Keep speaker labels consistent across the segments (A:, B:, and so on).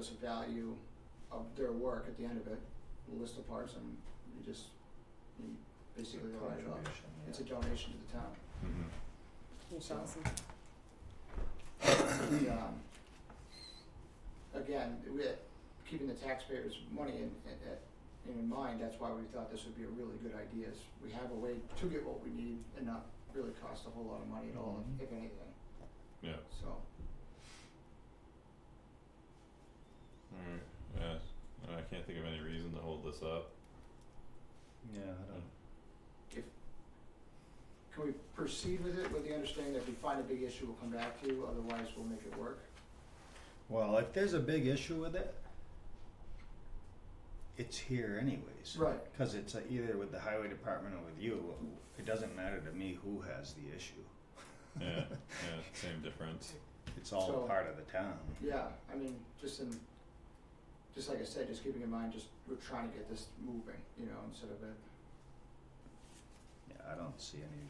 A: us the value of their work at the end of it, a list of parts, and you just, you basically write it off.
B: Contribution, yeah.
A: It's a donation to the town.
C: Mhm.
D: That's awesome.
A: And, um, again, with keeping the taxpayers' money in, in, in mind, that's why we thought this would be a really good idea, is we have a way to get what we need and not really cost a whole lot of money at all,
B: Mhm.
A: if anything,
C: Yeah.
A: so.
C: Alright. Yeah. I can't think of any reason to hold this up.
B: Yeah, I don't.
A: Can we proceed with it with the understanding that if we find a big issue, we'll come back to you, otherwise we'll make it work?
B: Well, if there's a big issue with it, it's here anyways.
A: Right.
B: Because it's uh, either with the highway department or with you. It doesn't matter to me who has the issue.
C: Yeah. yeah. Same difference.
B: It's all
A: So-
B: part of the town.
A: Yeah, I mean, just in, just like I said, just keeping in mind, just we're trying to get this moving, you know, instead of it,
B: Yeah, I don't see any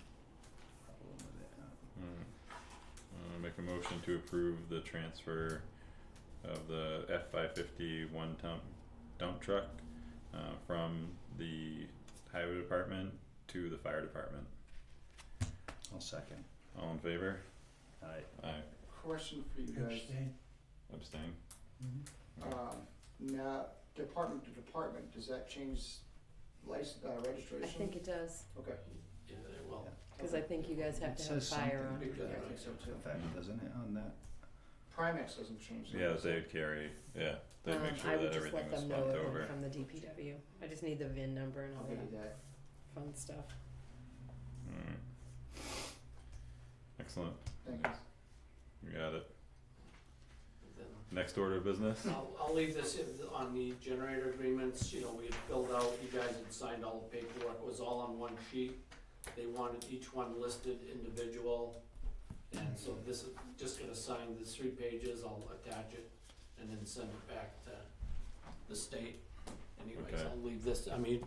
B: problem with it. uh,
C: Alright. Uh, Mm-hmm. make a motion to approve the transfer of the F five fifty one dump dump truck uh from the highway department to the fire department.
B: I'll second.
C: All in favor?
B: I,
C: Aye.
A: question for you guys.
C: Abstain.
B: Mm-hmm.
A: Um, now, department to department, does that change license, uh, registration?
D: I think it does,
A: Okay.
E: Yeah, they will.
D: cause I think you guys have
B: It
D: to have
B: says
D: fire
B: something.
D: on it.
A: Yeah, I think so
B: in
A: too.
B: fact, doesn't it on that?
A: Primex doesn't change.
C: Yeah,
A: that.
C: they would carry, yeah, they'd make
D: Um,
C: sure that everything was
D: I would just let them know
C: swapped
D: it
C: over.
D: went from the DPW, I just need the VIN number and all
A: I'll give you
D: that
A: that.
D: fun stuff.
C: Alright. Excellent,
A: Thank you.
C: you got it.
E: Then
C: Next order of business?
E: I'll, I'll leave this in- on the generator agreements, you know, we had filled out, you guys had signed all the paperwork, it was all on one sheet. They wanted each one listed individual, and so this is, just gonna sign the three pages, I'll attach it, and then send it back to the state. Anyways,
C: Okay.
E: I'll leave this, I mean,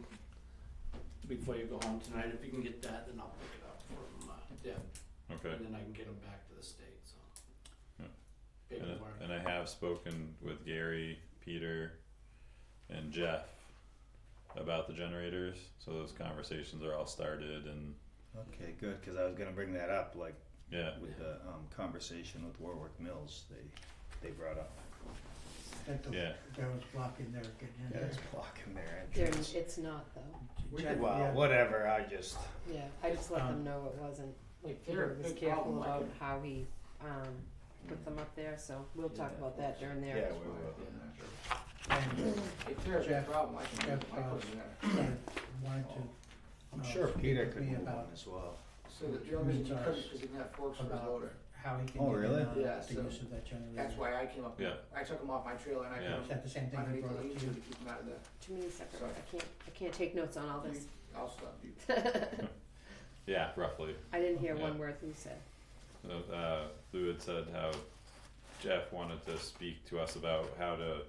E: before you go home tonight, if you can get that, then I'll pick it up from, uh, Deb,
C: Okay,
E: and then I can get them back to the state, so.
C: Yeah. and,
E: Paperwork.
C: and I have spoken with Gary, Peter, and Jeff about the generators, so those conversations are all started and,
B: Okay, good, because I was gonna bring that up, like
C: yeah,
B: with the um, conversation with Warwick Mills, they, they brought up.
F: That the,
C: Yeah.
F: that was blocking their getting in
B: Yeah,
F: there.
B: it's blocking their
D: There,
B: entrance.
D: it's not though,
A: We
F: Check-
A: could-
B: Well,
F: yeah.
B: whatever, I just,
D: yeah, I just let them
F: Um,
D: know it wasn't, like
E: if they're
D: Peter
E: a
D: was
E: big
D: careful
E: problem, I
D: about
E: can-
D: how he, um, put them up there, so we'll talk
E: Yeah.
D: about that during
B: yeah,
D: their
B: we
A: fine,
B: will.
F: And
A: If there's a
F: Jeff-
A: problem, I can,
F: Jeff,
A: I
F: uh,
A: can,
F: wanted to,
B: Oh. I'm
F: Uh,
B: sure
F: speak
B: Peter
F: with
B: could
F: me
B: move
F: about-
B: on as well.
A: so the drill is, he
F: Recharge.
A: couldn't, cause he didn't have forks for his
F: About-
A: loader.
F: how he can
B: Oh,
F: get in
B: really?
F: on
A: Yeah,
F: the
A: so
F: use of that generator.
A: That's why I came up,
C: Yeah.
A: I took him off my trailer and I
C: Yeah.
A: put him
F: Is that the same thing we
A: underneath
F: brought
A: the
F: up
A: leaves
F: to
A: to
F: you?
A: keep him out of the,
D: too many separate,
A: Sorry.
D: I can't, I can't take notes on all this.
A: I'll stop you.
C: yeah, roughly.
D: I didn't hear
C: Yeah.
D: one word you said.
C: So, uh, Lou had said how Jeff wanted to speak to us about how to,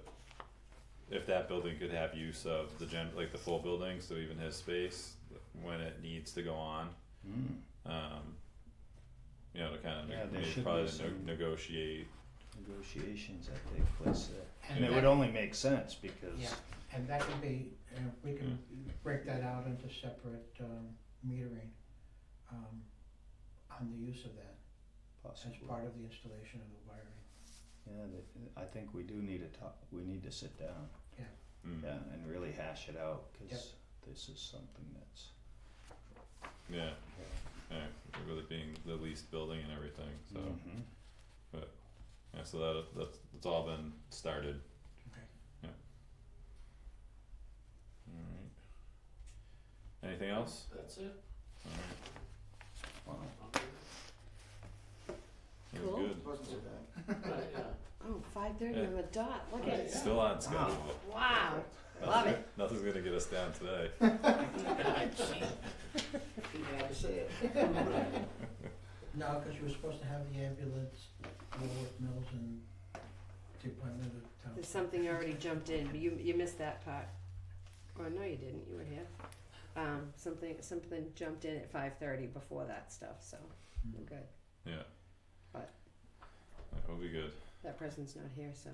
C: if that building could have use of the gen, like the full building, so even his space, when it needs to go on,
B: Mm,
C: um, you know, to kind
B: Yeah,
C: of,
B: there
C: maybe
B: should
C: probably
B: be
C: to
B: some-
C: ne- negotiations.
B: Negotiations that take place there. And
F: And
B: it would
F: that,
B: only make sense because,
F: Yeah. and that could be, uh, we can break that out into separate, um, metering, um, on the use of that as
B: possibly,
F: part of the installation of the wiring.
B: yeah, that, I think we do need to talk, we need to sit down,
C: Mm,
B: yeah, and really hash it out, cause this is something that's,
C: Yeah,
B: yeah.
C: yeah, with it being the leased building and everything, so,
D: Mm-hmm.
B: Mhm.
C: yeah, so that, that's, that's all been started.
F: Okay.
C: Yeah. Alright. Anything else?
E: That's it.
C: Alright.
B: Wow.
C: That
D: Cool.
C: was good.
A: Wasn't so bad.
E: Right, yeah.
D: Oh, five thirty,
C: Yeah. Oh,
D: I'm a dot, look at
E: Right,
D: it.
E: yeah.
C: Still on schedule.
D: Wow,
C: Nothing-
D: Love it.
C: Nothing's gonna get us down today.
A: You had to say it.
F: No, cause you were supposed to have the ambulance, Warwick Mills and the appointment of town.
D: there's something already jumped in, but you, you missed that part. Or no, you didn't, you were here. Um, something, something jumped in at five thirty before that stuff, so we're good.
C: Yeah.
D: But-
C: That will be good.
D: That person's not here, so